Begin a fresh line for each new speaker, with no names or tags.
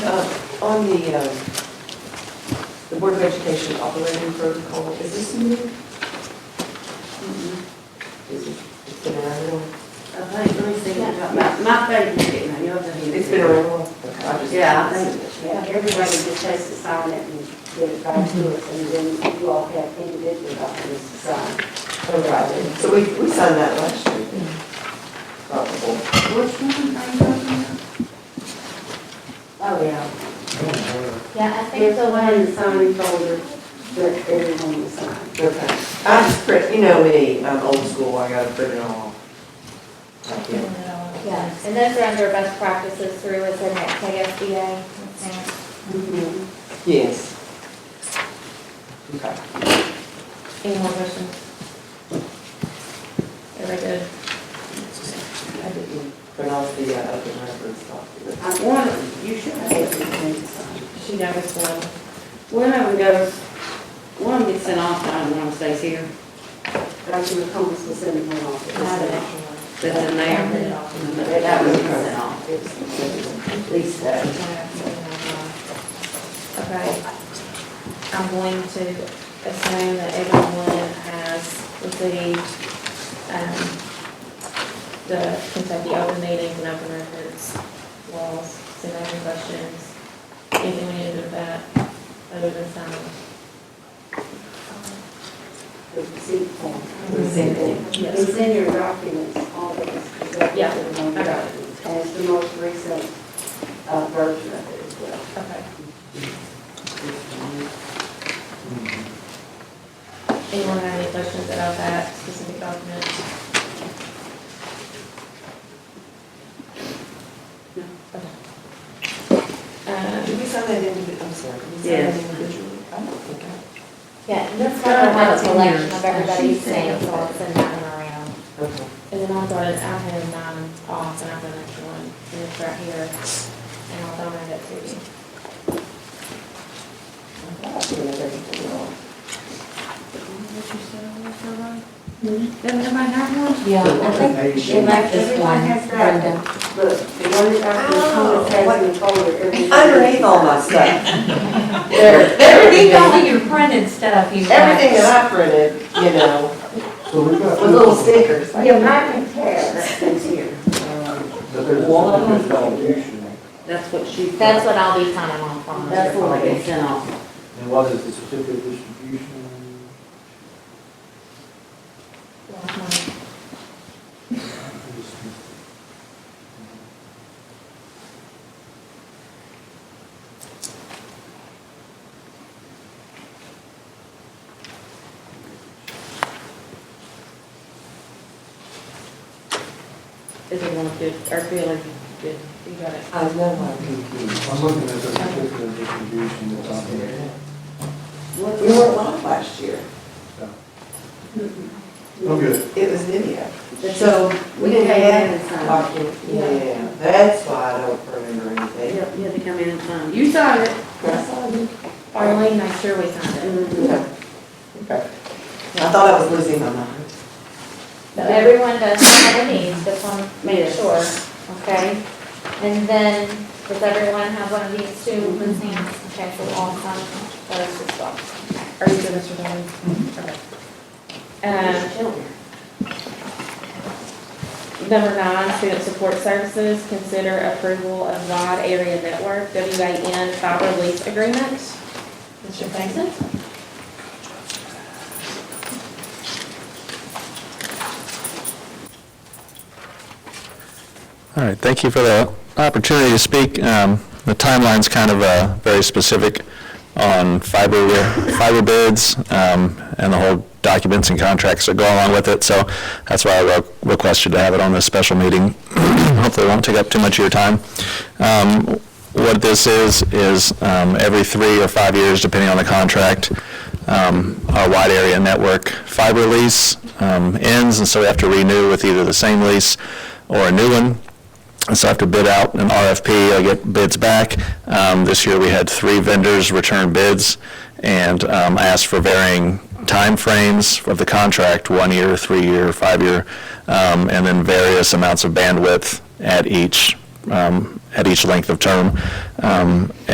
Uh, On the, um, the Board of Education operating protocol, is this new? Is it, it's been around a while?
I think, let me see, my, my favorite thing, I know that you.
It's been around a while. I just-
Yeah, I think, yeah, everybody gets has to sign it and get it back to us, and then you all have individual documents to sign.
Oh, right. So we, we signed that last year. Probably.
Which one are you talking about? Oh, yeah,
Yeah, I think
there's
the
the one in the
one,
signing folder that everyone will sign.
Okay. I just print, you know me, I'm old school, I gotta print it all. Like, yeah.
yeah, and those are under best practices through, is in that KSBA.
Yes. Okay.
Any more questions? Very good.
I didn't pronounce the uh, open records document.
I wanted, you should have everything to sign.
She noticed one.
One of them goes, one gets sent off, I don't know, stays here. But I should have told us to send it one off. That's in there. But That was sent off. At least, uh,
Okay. I'm going to assume that everyone has received, um, the Kentucky Open Meetings and Open Records laws, so no any questions, anything we need to do with that, other than sign.
the receipt form.
Receipt form.
It's in your documents, all of this. is up
Yeah,
to the one
I got it.
document. And it's the most recent uh, version of it as well.
Okay. Anyone have any questions about that specific document?
No.
Um,
Did we sign that individually? I'm sorry. did we sign that
Yes.
individually? I don't think I.
Yeah, and that's
Kind of
kind of
like
like
ten
collection
years.
of
She
everybody's
said
names, so I'll send that one around.
Okay.
And then I'll throw it, I have nine off, and I've got an extra one, and it's right here, and I'll donate it to you.
I thought I printed everything off.
Doesn't everybody have one?
Yeah, I think she left this one,
Everyone has that.
Brenda.
Look, the one that I can
Oh,
hold has in the folder. everything.
Underneath all my stuff. There, everything,
all your printed stuff you
everything that I printed, you know,
So we got.
with little stickers.
Yeah, mine can tear, that thing's here.
But there's one that's foundation,
That's what she.
That's what I'll be signing off on.
That's what I get sent off.
and what is the certificate of distribution?
Is it one good, or feeling good, you got it.
I know I'm confused.
I'm looking at the certificate of distribution that's on there.
We weren't live last year.
Oh, good.
It was video.
That's-
So we
We
didn't
came in
have.
and signed.
Yeah, that's why I don't remember anything.
Yep, you had to come in and sign. You signed it.
I saw you.
Arlene, make sure we sign it.
Yeah. Okay. I thought I was losing my mind.
But everyone does have a need, just want to make
Yes.
sure, okay? And then, does everyone have one of these two loose hands? Okay, so we'll all sign those as well. Are you good, Mr. Donovan? Okay. Um, Number nine, student support services, consider approval of WAD area network, WAN fiber lease agreement. Mr. Franklin?
All right, thank you for the opportunity to speak. Um, The timeline's kind of uh, very specific on fiber, fiber bids um, and the whole documents and contracts that go along with it, so that's why I re- requested to have it on this special meeting. Hopefully it won't take up too much of your time. Um, What this is, is um, every three or five years, depending on the contract, um, our wide area network fiber lease um, ends, and so we have to renew with either the same lease or a new one. And so I have to bid out an RFP, I get bids back. Um, This year, we had three vendors return bids, and um, I asked for varying timeframes of the contract, one year, three year, five year, um, and then various amounts of bandwidth at each, um, at each length of term. Um, Um,